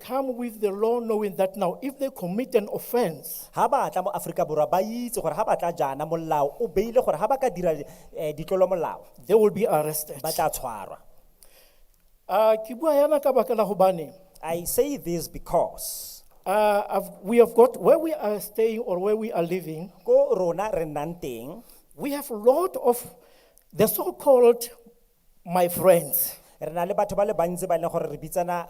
come with the law knowing that now if they commit an offense, ha ba tla mo Afrika Borwa ba itse gore ha ba tla jana molao o beile gore ha ba ka dira eh ditlolo molao they will be arrested. ba tla tshwarwa Ah, ke bua yana ka baka la hobane, I say this because ah, I've- we have got, where we are staying or where we are living, ko rona re nnang teng we have a lot of the so-called my friends. re na le batho ba le bantsi ba e leng gore re bitsana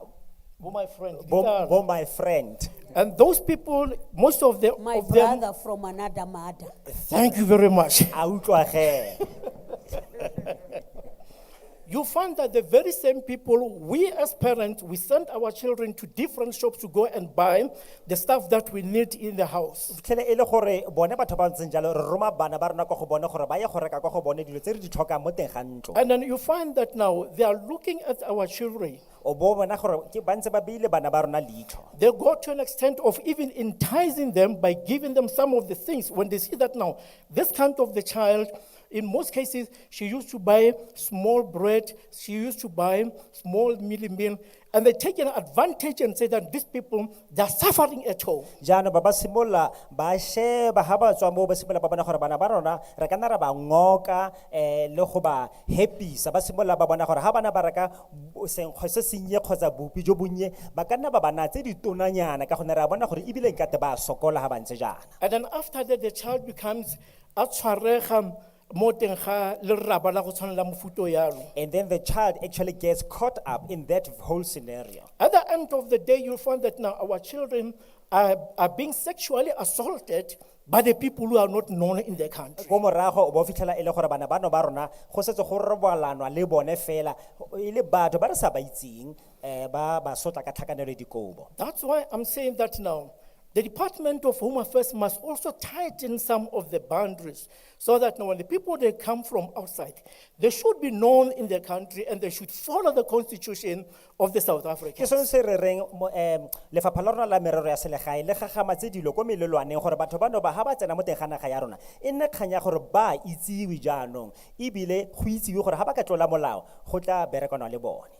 Bo my friends. bo, Ditaba. bo my friend And those people, most of them, My of them, brother from another mother. thank you very much. a utlwa ge You find that the very same people, we as parents, we send our children to different shops to go and buy the stuff that we need in the house. tlhele e le gore bone batho ba ntseng jalo re roma bana ba rona kwa go bone gore ba ye go reka kwa go bone dilo tse re di tlhokang mo teng ga ntlo And then you find that now they are looking at our children. o bo bona gore ke ba ntse ba beile bana ba rona leitlho They go to an extent of even enticing them by giving them some of the things. When they see that now, this kind of the child, in most cases, she used to buy small bread, she used to buy small mealy meal, and they take an advantage and say that these people, they're suffering at all. jaanong ba ba simolola ba sheba ga ba tswa moo ba simolola ba bona gore bana ba rona re ka nna ra ba ngoka um le go ba hapisa ba simolola ba bona gore ga bana ba reka bo- senkgo se sennye kgotsa bopi jo bonnye ba ka nna ba bana tse ditonanyana ka gonne re a bona gore ebile nkate ba sokola ga ba ntse jaana And then after that, the child becomes a tshwarega mo teng ga leraba la go tshwana la mofuta o yalo. and then the child actually gets caught up in that whole scenario At the end of the day, you'll find that now our children are, are being sexually assaulted by the people who are not known in the country. ko morago o bo fitlhela e le gore bana bano ba rona go setse go rebolanwa le bone fela e le batho ba re sa ba itseng um ba ba sotla ka tlhakanelo ya dikobo That's why I'm saying that now. The Department of Home Affairs must also tighten some of the boundaries so that now when the people they come from outside, they should be known in the country and they should follow the constitution of the South Africa. ke sone se re reng mo- em, lefapha la rona la merero ya selegae le gagamatse dilo ko melelwaneng gore batho bano ba ga ba tsena mo teng ga naga ya rona e nne kgang ya gore ba itsewe jaanong ebile go itsewe gore ga ba ka tlola molao go tla berekana le bone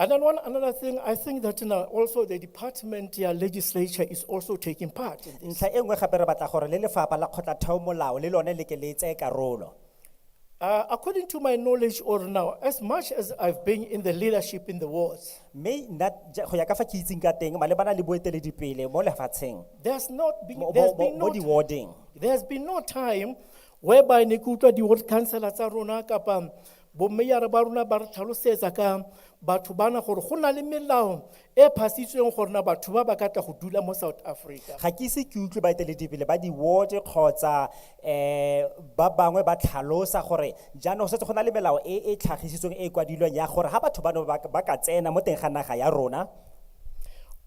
And then one another thing, I think that now also the department, yeah, legislature is also taking part in this. ntlha e nngwe gape re batla gore le lefapha la kgotlatheo molao le lone le ke le tseye karolo Uh, according to my knowledge or now, as much as I've been in the leadership in the wards, mme nna ja- go ya ka fa ke itseng ka teng malebana le boeteledipele mo lefatsheng there's not been, mo- there's mo been mo no di-warding There's been no time whereby ne ke utlwa di-ward councillor tsa rona kapa bommeyara ba rona ba re tlhalosetsa ka batho bana gore go na le melao e phasitsweng gore na batho ba ba ka tla go dula mo south africa ga ke ise ke utlwe baeteledipele ba di-ward kgotsa um ba bangwe ba tlhalosa gore jaanong go setse go na le melao e e tlhagisitsweng e e kwadilweng ya gore ga batho bano ba ka- ba ka tsena mo teng ga naga ya rona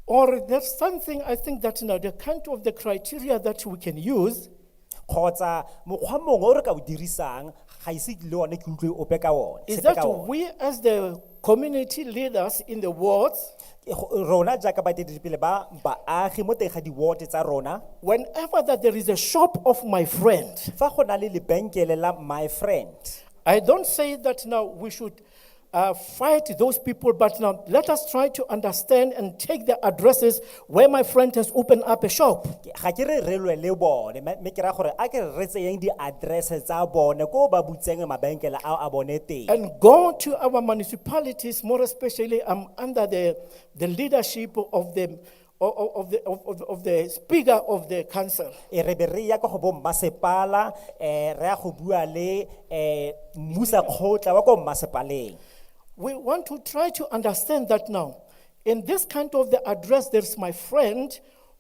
or there's something i think that now the kind of the criteria that we can use kgotsa mokgwa mongwe o re ka o dirisang ga ise le one ke utlwe ope ka one is sepe that ka one. we as the community leaders in the wards Ke go- rona jaaka baeteledipele ba baagi mo teng ga di-ward tsa rona whenever that there is a shop of my friend fa go na le lebenkele la my friend I don't say that now we should uh, fight those people, but now let us try to understand and take the addresses where my friend has opened up a shop. Ke- ga ke re re lwe le bone me- me ke raya gore a ke re re tseyeng di-address tsa bone ko ba butseng mabenkele ao a bone teng And go to our municipalities, more especially um, under the, the leadership of the, of, of the, of, of- of the speaker of the council. e re be re ya kwa go bo mmasepala um re ya go bua le um mmusa kgotla wa ko mmasepaleng We want to try to understand that now. In this kind of the address, there's my friend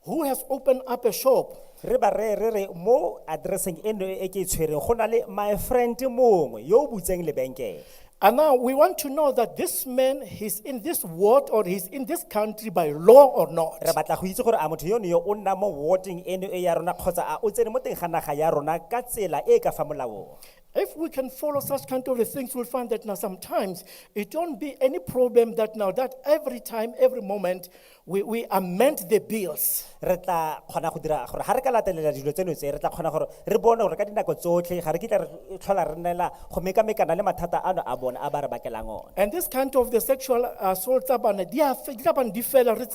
who has opened up a shop. re ba re re re mo addresseng eno e ke e tshwereng go na le my friend mongwe yo o butseng lebenkele And now we want to know that this man, he's in this world or he's in this country by law or not. re batla go itse gore a motho yono yo o nna mo warding eno e ya rona kgotsa a o tsene mo teng ga naga ya rona ka tsela e e ka fa molaong If we can follow such kind of things, we'll find that now sometimes it don't be any problem that now that every time, every moment, we, we amend the bills. re tla kgona go dira gore ga re ka latelela dilo tseno tse re tla kgona gore re bone gore ka dinako tsotlhe ga re kitla re tlhola re nnela go mekamekana le mathata ano a bone a ba re bakelang one And this kind of the sexual assault, they are